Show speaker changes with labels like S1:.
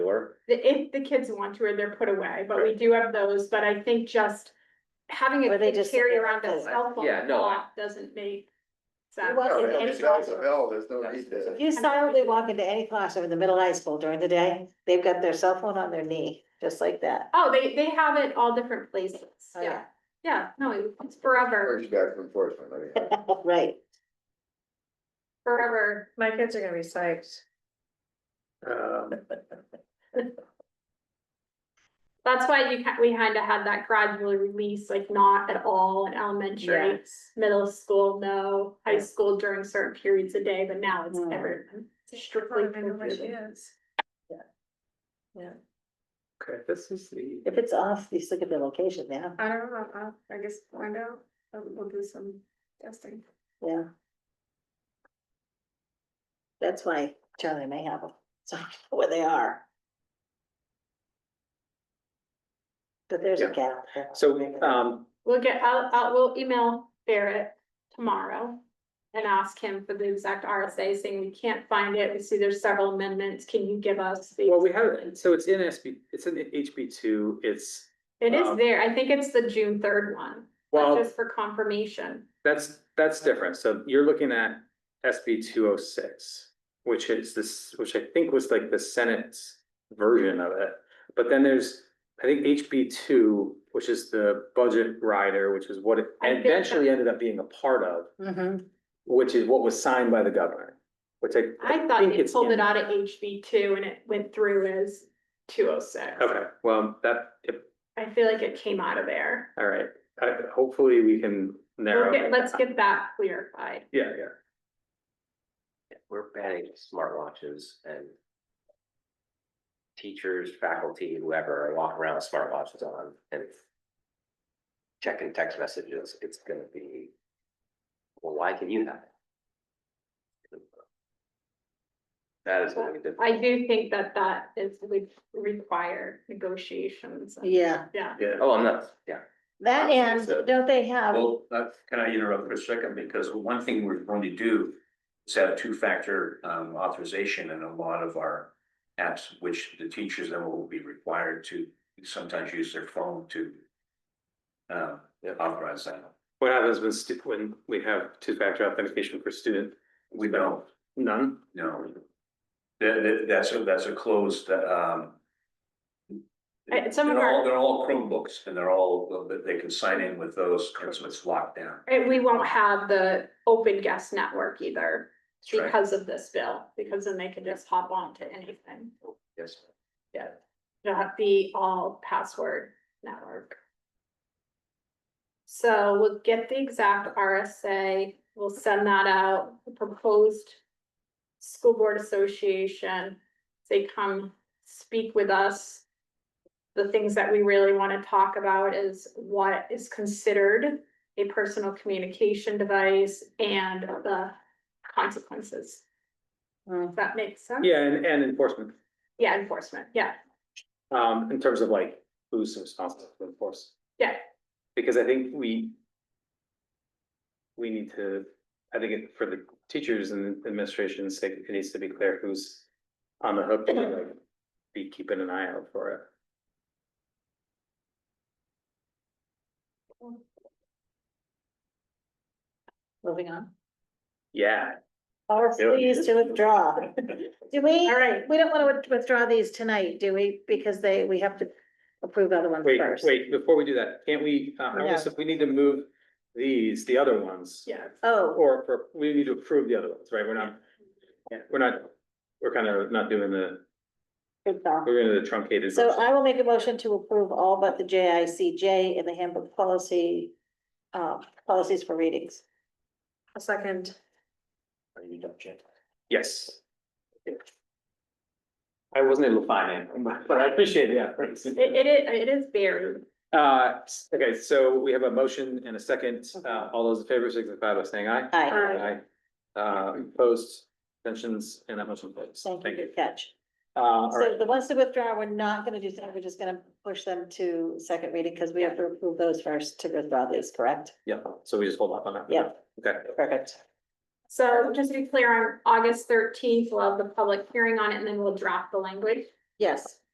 S1: or?
S2: The, if the kids want to, or they're put away, but we do have those, but I think just having
S3: Or
S2: a
S3: they
S2: kid
S3: just-
S2: carry around a cell phone uh,
S1: Yeah, no, I-
S2: lock doesn't make sense.
S3: Well,
S1: No,
S3: it-
S1: it'll
S3: it-
S1: be bell to bell, there's no need
S3: If
S1: to.
S3: you silently walk into any classroom in the middle of high school during the day, they've got their cell phone on their knee, just like that.
S2: Oh, they, they have it all different places,
S3: Oh,
S2: yeah, yeah, no, it- it's forever,
S1: Urge back from enforcement, I mean.
S3: Right.
S2: forever.
S4: My kids are gonna be psyched.
S5: Um,
S2: That's why you, ca- we kind of had that gradual release, like not at all in elementary, middle school, no, high
S4: Yeah.
S2: school during certain periods of day, but now it's
S1: Hmm.
S3: Mm.
S2: ever strictly. prohibited.
S4: is.
S5: okay, this is the,
S3: If it's off, just look at the location now,
S4: I don't know, I'll- I guess find out, I'll- we'll do some testing.
S3: yeah. That's why Charlie may have them, so where they are. But there's a
S5: Yeah.
S3: gap.
S5: so, um,
S2: We'll get, I'll, I'll, we'll email Barrett tomorrow and ask him for the exact RSA saying we can't find it. We see there's several amendments. Can you give us? the
S5: well, we have, so it's in SB, it's in HB two, it's,
S2: It is
S5: um,
S2: there. I think it's the June third one, but
S5: well,
S2: just for confirmation.
S5: that's, that's different, so you're looking at SB two oh six. Which is this, which I think was like the Senate's version of it, but then there's, I think HB two, which is the budget rider, which is what it
S2: I think that-
S5: eventually ended up being a part of.
S3: Mhm.
S5: Which is what was signed by the governor, which I.
S2: I thought
S5: think
S2: they
S5: it's
S2: pulled
S5: in
S2: it
S5: there.
S2: out of HB two and it went through as two oh six.
S5: Okay, well, that, if,
S2: I feel like it came out of there.
S5: all right, I, hopefully we can narrow.
S2: Okay,
S5: it
S2: let's
S5: down.
S2: get that clarified.
S5: Yeah, yeah,
S6: we're banning smartwatches and. Teachers, faculty, whoever are walking around with smartwatches on and. Checking text messages, it's gonna be. Well, why can you have it? That is gonna be difficult.
S2: I do think that that is would require negotiations.
S3: Yeah,
S2: Yeah.
S5: yeah.
S6: Oh, I'm not, yeah.
S3: that
S5: uh,
S3: and don't they have,
S7: Well, that, can I interrupt for a second, because one thing we're going to do is have two-factor um authorization in a lot of our apps, which the teachers then will be required to sometimes use their phone to uh, authorize that.
S5: What happens when stu, when we have two-factor authentication for student?
S7: We don't,
S5: None?
S7: no. That, that, that's a, that's a closed, um.
S2: Uh, some of
S7: They're all-
S2: our-
S7: They're all Chromebooks, and they're all, they can sign in with those, and so it's locked down.
S2: And we won't have the open guest network either
S7: That's right.
S2: because of this bill, because then they can just hop on to anything.
S6: Yes.
S2: It'll have to be all password network. So we'll get the exact RSA, we'll send that out, the proposed school board association, say come speak with us. The things that we really want to talk about is what is considered a personal communication device and the consequences.
S3: Hmm.
S2: Does that make sense?
S5: Yeah, and, and enforcement,
S2: Yeah, enforcement, yeah.
S5: um, in terms of like, who's responsible to enforce?
S2: Yeah.
S5: Because I think we. We need to, I think it- for the teachers and administration's sake, it needs to be clear who's on the hook to like. Be keeping an eye out for it.
S3: moving on,
S5: Yeah,
S3: or
S5: Do it.
S3: please to withdraw. Do we?
S2: All right.
S3: We don't want to withdraw these tonight, do we? Because they, we have to approve other ones
S5: Wait,
S3: first.
S5: wait, before we do that, can't we, uh, I guess if we need to move these, the other ones.
S2: Yeah.
S3: Oh,
S5: Or, for- we need to approve the other ones, right? We're not, we're not, we're kind of not doing the,
S3: good call.
S5: we're gonna the truncated.
S3: So
S5: version.
S3: I will make a motion to approve all but the J I C J in the handbook policy, uh, policies for readings.
S4: A second.
S6: Are you done, Jen?
S5: Yes. I wasn't able to find it, but I appreciate the effort.
S2: It, it is, it is buried.
S5: Uh, okay, so we have a motion and a second. Uh, all those in favor signify by saying aye.
S3: Aye,
S4: Aye.
S5: Uh, opposed, tensions, and that motion carries.
S3: thank you, good catch.
S5: Uh, all right.
S3: So the ones to withdraw, we're not gonna do that, we're just gonna push them to second reading, because we have to approve those first to withdraw these, correct?
S5: Yeah, so we just hold off on that.
S3: Yeah.
S5: Okay.
S3: Perfect.
S2: So just to be clear, on August thirteenth, we'll have the public hearing on it and then we'll draft the language.
S3: Yes,